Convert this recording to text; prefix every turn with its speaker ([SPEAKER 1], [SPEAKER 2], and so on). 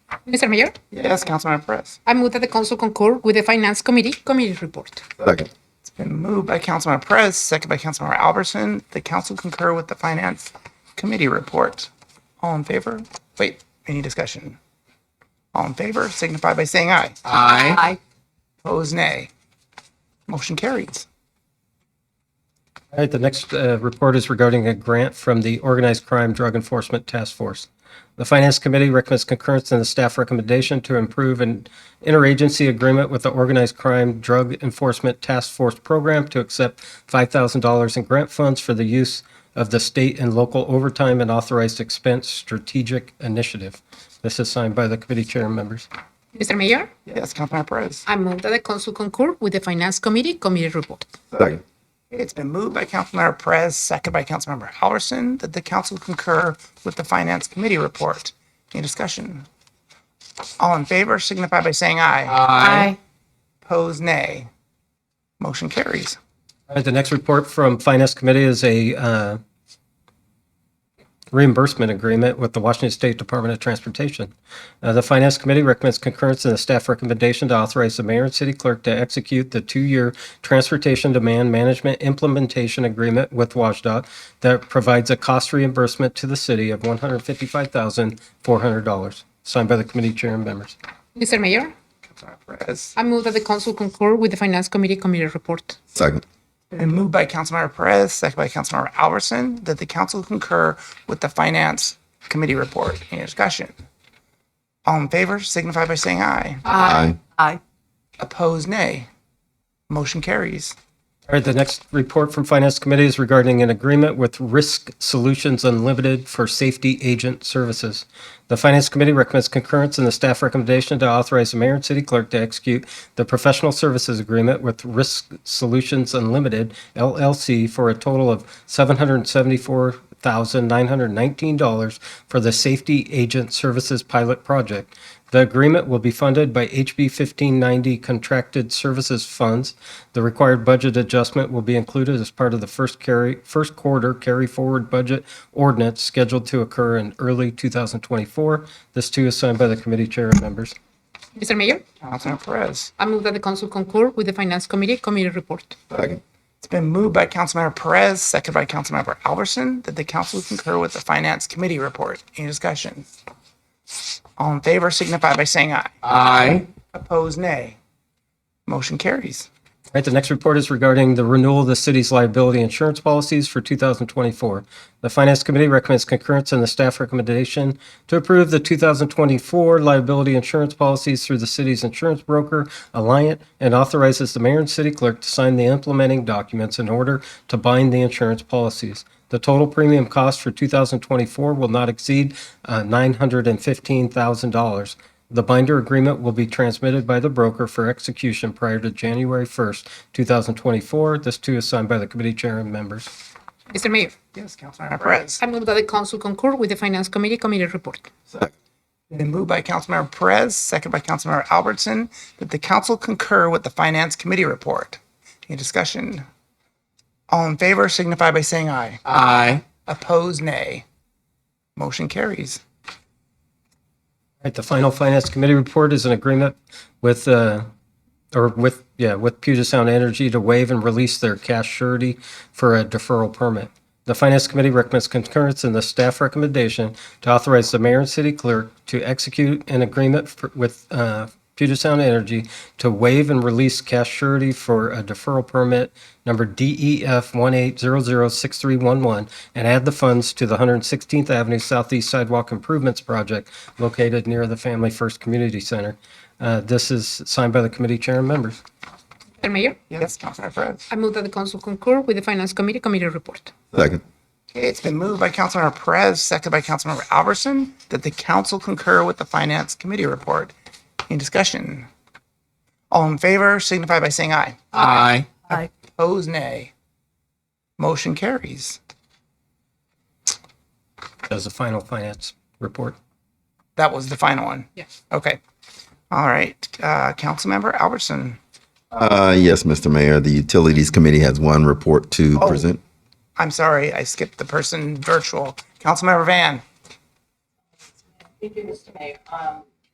[SPEAKER 1] Mr. Mayor,
[SPEAKER 2] Yes, Councilmember Perez.
[SPEAKER 1] I move that the council concur with the Finance Committee Committee Report.
[SPEAKER 3] Second.
[SPEAKER 2] It's been moved by Councilmember Perez, second by Councilmember Albertson. The council concur with the Finance Committee report. All in favor? Wait, any discussion? All in favor signify by saying aye.
[SPEAKER 3] Aye.
[SPEAKER 2] Opposed, nay. Motion carries.
[SPEAKER 4] All right, the next uh, report is regarding a grant from the Organized Crime Drug Enforcement Task Force. The Finance Committee recommends concurrence in the staff recommendation to improve an interagency agreement with the Organized Crime Drug Enforcement Task Force Program to accept $5,000 in grant funds for the use of the state and local overtime and authorized expense strategic initiative. This is signed by the committee chair and members.
[SPEAKER 1] Mr. Mayor,
[SPEAKER 2] Yes, Councilmember Perez.
[SPEAKER 1] I move that the council concur with the Finance Committee Committee Report.
[SPEAKER 3] Second.
[SPEAKER 2] It's been moved by Councilmember Perez, second by Councilmember Albertson, that the council concur with the Finance Committee report. Any discussion? All in favor signify by saying aye.
[SPEAKER 1] Aye.
[SPEAKER 2] Opposed, nay. Motion carries.
[SPEAKER 4] All right, the next report from Finance Committee is a uh, reimbursement agreement with the Washington State Department of Transportation. Uh, The Finance Committee recommends concurrence in the staff recommendation to authorize the mayor and city clerk to execute the two-year Transportation Demand Management Implementation Agreement with WashDOT that provides a cost reimbursement to the city of $155,400, signed by the committee chair and members.
[SPEAKER 1] Mr. Mayor,
[SPEAKER 2] Councilmember Perez.
[SPEAKER 1] I move that the council concur with the Finance Committee Committee Report.
[SPEAKER 3] Second.
[SPEAKER 2] Been moved by Councilmember Perez, second by Councilmember Albertson, that the council concur with the Finance Committee report. Any discussion? All in favor signify by saying aye.
[SPEAKER 3] Aye.
[SPEAKER 2] Opposed, nay. Motion carries.
[SPEAKER 4] All right, the next report from Finance Committee is regarding an agreement with Risk Solutions Unlimited for Safety Agent Services. The Finance Committee recommends concurrence in the staff recommendation to authorize the mayor and city clerk to execute the professional services agreement with Risk Solutions Unlimited LLC for a total of $774,919 for the Safety Agent Services Pilot Project. The agreement will be funded by HB 1590 contracted services funds. The required budget adjustment will be included as part of the first carry, first quarter carry forward budget ordinance scheduled to occur in early 2024. This too is signed by the committee chair and members.
[SPEAKER 1] Mr. Mayor,
[SPEAKER 2] Councilmember Perez.
[SPEAKER 1] I move that the council concur with the Finance Committee Committee Report.
[SPEAKER 3] Second.
[SPEAKER 2] It's been moved by Councilmember Perez, second by Councilmember Albertson, that the council concur with the Finance Committee report. Any discussion? All in favor signify by saying aye.
[SPEAKER 3] Aye.
[SPEAKER 2] Opposed, nay. Motion carries.
[SPEAKER 4] All right, the next report is regarding the renewal of the city's liability insurance policies for 2024. The Finance Committee recommends concurrence in the staff recommendation to approve the 2024 liability insurance policies through the city's insurance broker, Alliant, and authorizes the mayor and city clerk to sign the implementing documents in order to bind the insurance policies. The total premium cost for 2024 will not exceed uh, $915,000. The binder agreement will be transmitted by the broker for execution prior to January 1st, 2024. This too is signed by the committee chair and members.
[SPEAKER 1] Mr. Mayor,
[SPEAKER 2] Yes, Councilmember Perez.
[SPEAKER 1] I move that the council concur with the Finance Committee Committee Report.
[SPEAKER 3] Second.
[SPEAKER 2] Been moved by Councilmember Perez, second by Councilmember Albertson, that the council concur with the Finance Committee report. Any discussion? All in favor signify by saying aye.
[SPEAKER 3] Aye.
[SPEAKER 2] Opposed, nay. Motion carries.
[SPEAKER 4] All right, the final finance committee report is an agreement with, uh, or with, yeah, with Puget Sound Energy to waive and release their cash surety for a deferral permit. The finance committee recommends concurrence in the staff recommendation to authorize the mayor and city clerk to execute an agreement for- with uh, Puget Sound Energy to waive and release cash surety for a deferral permit number E DEF 18006311 and add the funds to the 116th Avenue Southeast Sidewalk Improvements Project located near the Family First Community Center. Uh, This is signed by the committee chair and members.
[SPEAKER 1] Mr. Mayor,
[SPEAKER 2] Yes, Councilmember Perez.
[SPEAKER 1] I move that the council concur with the Finance Committee Committee Report.
[SPEAKER 3] Second.
[SPEAKER 2] Okay, It's been moved by Councilmember Perez, second by Councilmember Albertson, that the council concur with the Finance Committee report. Any discussion? All in favor signify by saying aye.
[SPEAKER 3] Aye.
[SPEAKER 2] Opposed, nay. Motion carries.
[SPEAKER 4] That's the final finance report.
[SPEAKER 2] That was the final one?
[SPEAKER 1] Yes.
[SPEAKER 2] Okay. All right, uh, Councilmember Albertson.
[SPEAKER 3] Uh, yes, Mr. Mayor, the Utilities Committee has one report to present.
[SPEAKER 2] I'm sorry, I skipped the person virtual. Councilmember Van.
[SPEAKER 5] Thank you, Mr. Mayor. Um,